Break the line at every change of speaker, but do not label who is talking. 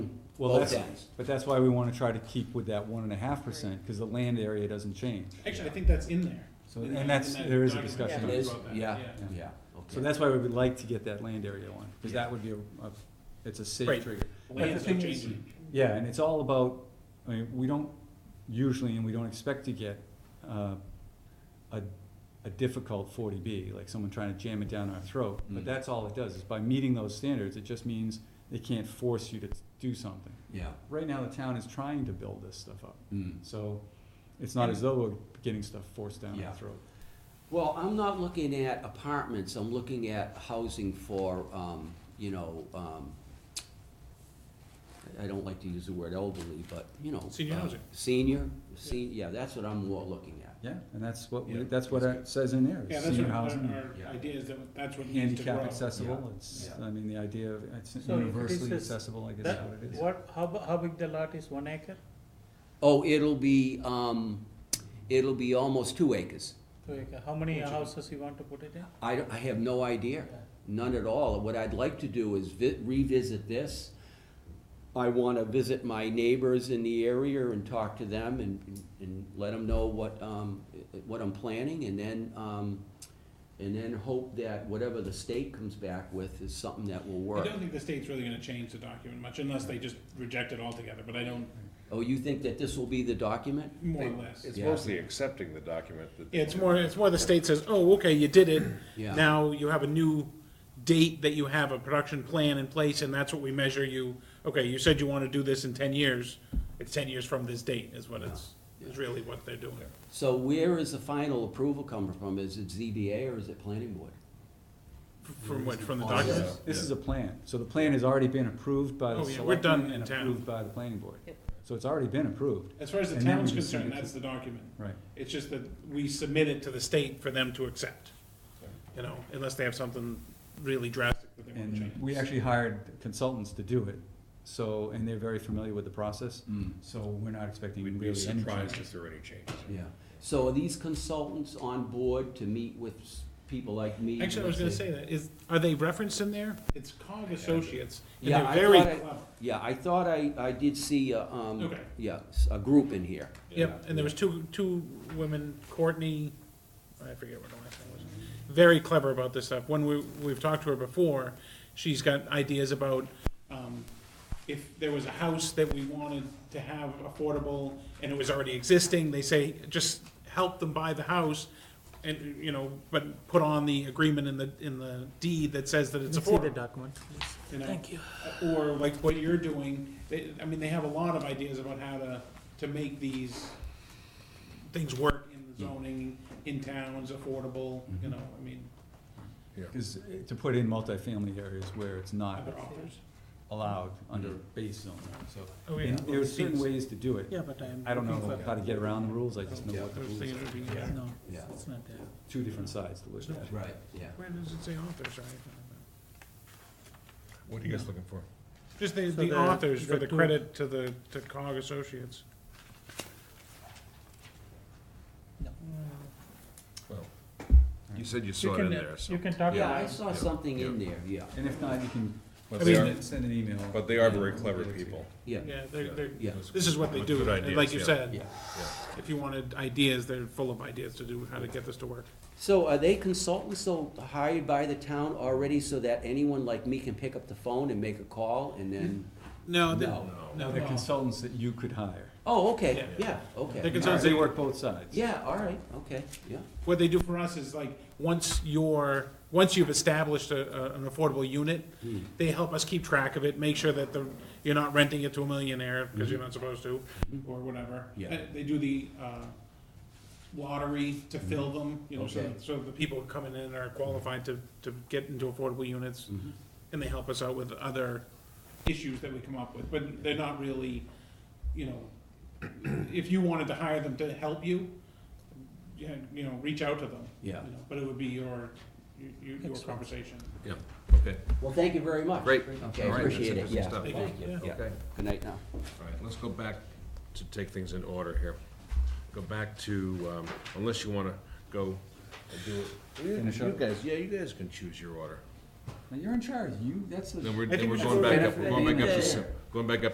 Well,
both
that's,
ends.
but that's why we wanna try to keep with that one and a half percent, cause the land area doesn't change.
Actually, I think that's in there.
So,
In
and
that-
that's,
in that
there is a
document
discussion.
you
on
It
it.
is,
wrote that,
yeah,
yeah.
yeah,
So
okay.
that's why we would like to get that land area one, cause
Yeah.
that would be a, a, it's a
Right.
safe trigger.
The Land's
thing
not
is-
changing.
Yeah, and it's all about, I mean, we don't usually, and we don't expect to get, uh, a, a difficult forty B, like someone trying to jam it down our throat,
Mm.
but that's all it does, is by meeting those standards, it just means they can't force you to do something.
Yeah,
Right now, the town is trying to build this stuff up,
mm.
so it's not as though we're getting stuff forced down
Yeah.
our throat.
Well, I'm not looking at apartments, I'm looking at housing for, um, you know, um, I don't like to use the word elderly, but, you know.
Senior
uh,
housing.
Senior, sen- yeah, that's what I'm more looking at.
Yeah, and that's what, we-
Yeah,
that's what
that's
it says in there,
Yeah,
is
that's what uh,
senior
our,
housing,
our
yeah.
idea is that that's what needs to grow.
handicap accessible, it's,
Yeah.
I mean, the idea of, it's
So if it
universally
is-
accessible, I guess is
That-
what it is.
What, how, bu- how big the lot is, one acre,
Oh, it'll be, um, it'll be almost two acres.
two acre, how many
Which-
houses you want to put it in?
I, don't- I have no idea, none at all. What I'd like to do is vi- revisit this. I want to visit my neighbors in the area and talk to them and, and let them know what, um, what I'm planning and then, um, and then hope that whatever the state comes back with is something that will
I
work.
don't think the state's really gonna change the document much unless they just reject it altogether, but I don't,
Oh, you think that this will be the document?
more or less.
It's
Yeah.
mostly accepting the document that.
Yeah, it's more, it's more the state says, oh, okay, you did it.
Yeah.
Now you have a new date that you have a production plan in place and that's what we measure you. Okay, you said you wanna do this in ten years. It's ten years from this date is what it's, is really what they're doing.
So where is the final approval coming from? Is it ZBA or is it planning board?
F- From what, from the
Yeah.
document?
This is a plan, so the plan has already been approved by the
Oh, yeah, we're done
selectmen
in
and
town.
approved by the planning board.
Yep.
So it's already been approved,
As far as the
And then we
town's
just send
concerned,
it to-
that's the document.
right.
It's just that we submit it to the state for them to accept, you know, unless they have something really drastic that they wanna
And
change.
we actually hired consultants to do it, so, and they're very familiar with the process,
Mm.
so we're not expecting
We'd
really
be
any change.
surprised if there are any changes.
Yeah, so are these consultants on board to meet with s- people like me?
Actually, I was gonna say that, is, are they referenced in there? It's COG Associates, and
Yeah,
they're
I
very
thought I-
clever.
Yeah, I thought I, I did see, uh, um,
Okay.
yeah, s- a group in here.
Yep, and there was two, two women, Courtney, I forget what the last name was, very clever about this stuff. When we, we've talked to her before, she's got ideas about, um, if there was a house that we wanted to have affordable and it was already existing, they say, just help them buy the house and, you know, but put on the agreement in the, in the deed that says that it's
Let's see the
affordable
document, please.
you know?
Thank you.
Or like what you're doing, they, I mean, they have a lot of ideas about how to, to make these things work in the zoning, in towns, affordable, you know, I mean,
Because to put in multifamily areas where it's not
other offers.
allowed under base zone, so.
Oh,
and
yeah.
There are certain ways to do it.
Yeah, but I'm.
I don't
looking
know
for-
how to get around the rules, I just know
Yeah.
what
I
the
was
rules
thinking
are.
it would be, yeah.
No,
Yeah.
it's not there.
Two different sides to look at.
Right, yeah.
Where does it say authors, right?
What are you guys looking for?
Just the,
So
the
the-
authors for
the
the
two-
credit to the, to COG Associates.
No.
You said you
You
saw it in
can,
there, so.
you can talk.
Yeah, I
about it.
saw something in there, yeah,
And if not, you can
But
I
they
mean,
are,
send, send an email.
but they are very clever people.
yeah,
Yeah, they're, they're,
yeah,
this is what they
Good
do, and
ideas,
like you
yeah.
said,
yeah.
if you wanted ideas, they're full of ideas to do, how to get this to work.
So are they consultants so hired by the town already so that anyone like me can pick up the phone and make a call and then?
No, they,
Oh,
No.
no,
They're consultants that you could hire.
Oh, okay,
Yeah.
yeah, okay.
They're consultants,
They
they-
work both sides.
Yeah, all right, okay, yeah,
What they do for us is like, once you're, once you've established a, a- an affordable unit,
Hmm.
they help us keep track of it, make sure that the, you're not renting it to a millionaire, because you're not supposed to, or whatever.
Mm-hmm. Yeah.
Uh, They do the, uh, lottery to fill them, you know, so,
Mm-hmm. Okay.
that- so the people coming in are qualified to, to get into affordable units.
Mm-hmm.
And they help us out with other issues that we come up with, but they're not really, you know, if you wanted to hire them to help you, you had- you know, reach out to them.
Yeah.
you know, But it would be your, your- your, your
Excellent.
conversation.
Yeah, okay,
well, thank you very much.
Great.
Okay,
All right, that's
appreciate it,
interesting
yeah,
stuff.
thank you,
Thank
yeah,
okay.
good night now.
All right, let's go back to take things in order here. Go back to, um, unless you wanna go and do it. You-
Finish
You
up.
guys, yeah, you guys can choose your order.
Now, you're in charge, you, that's the.
Then we're,
think
then
we
we're
should
going
go
back
right
up, we're
after
going
the
back up to,
end.
se- going back up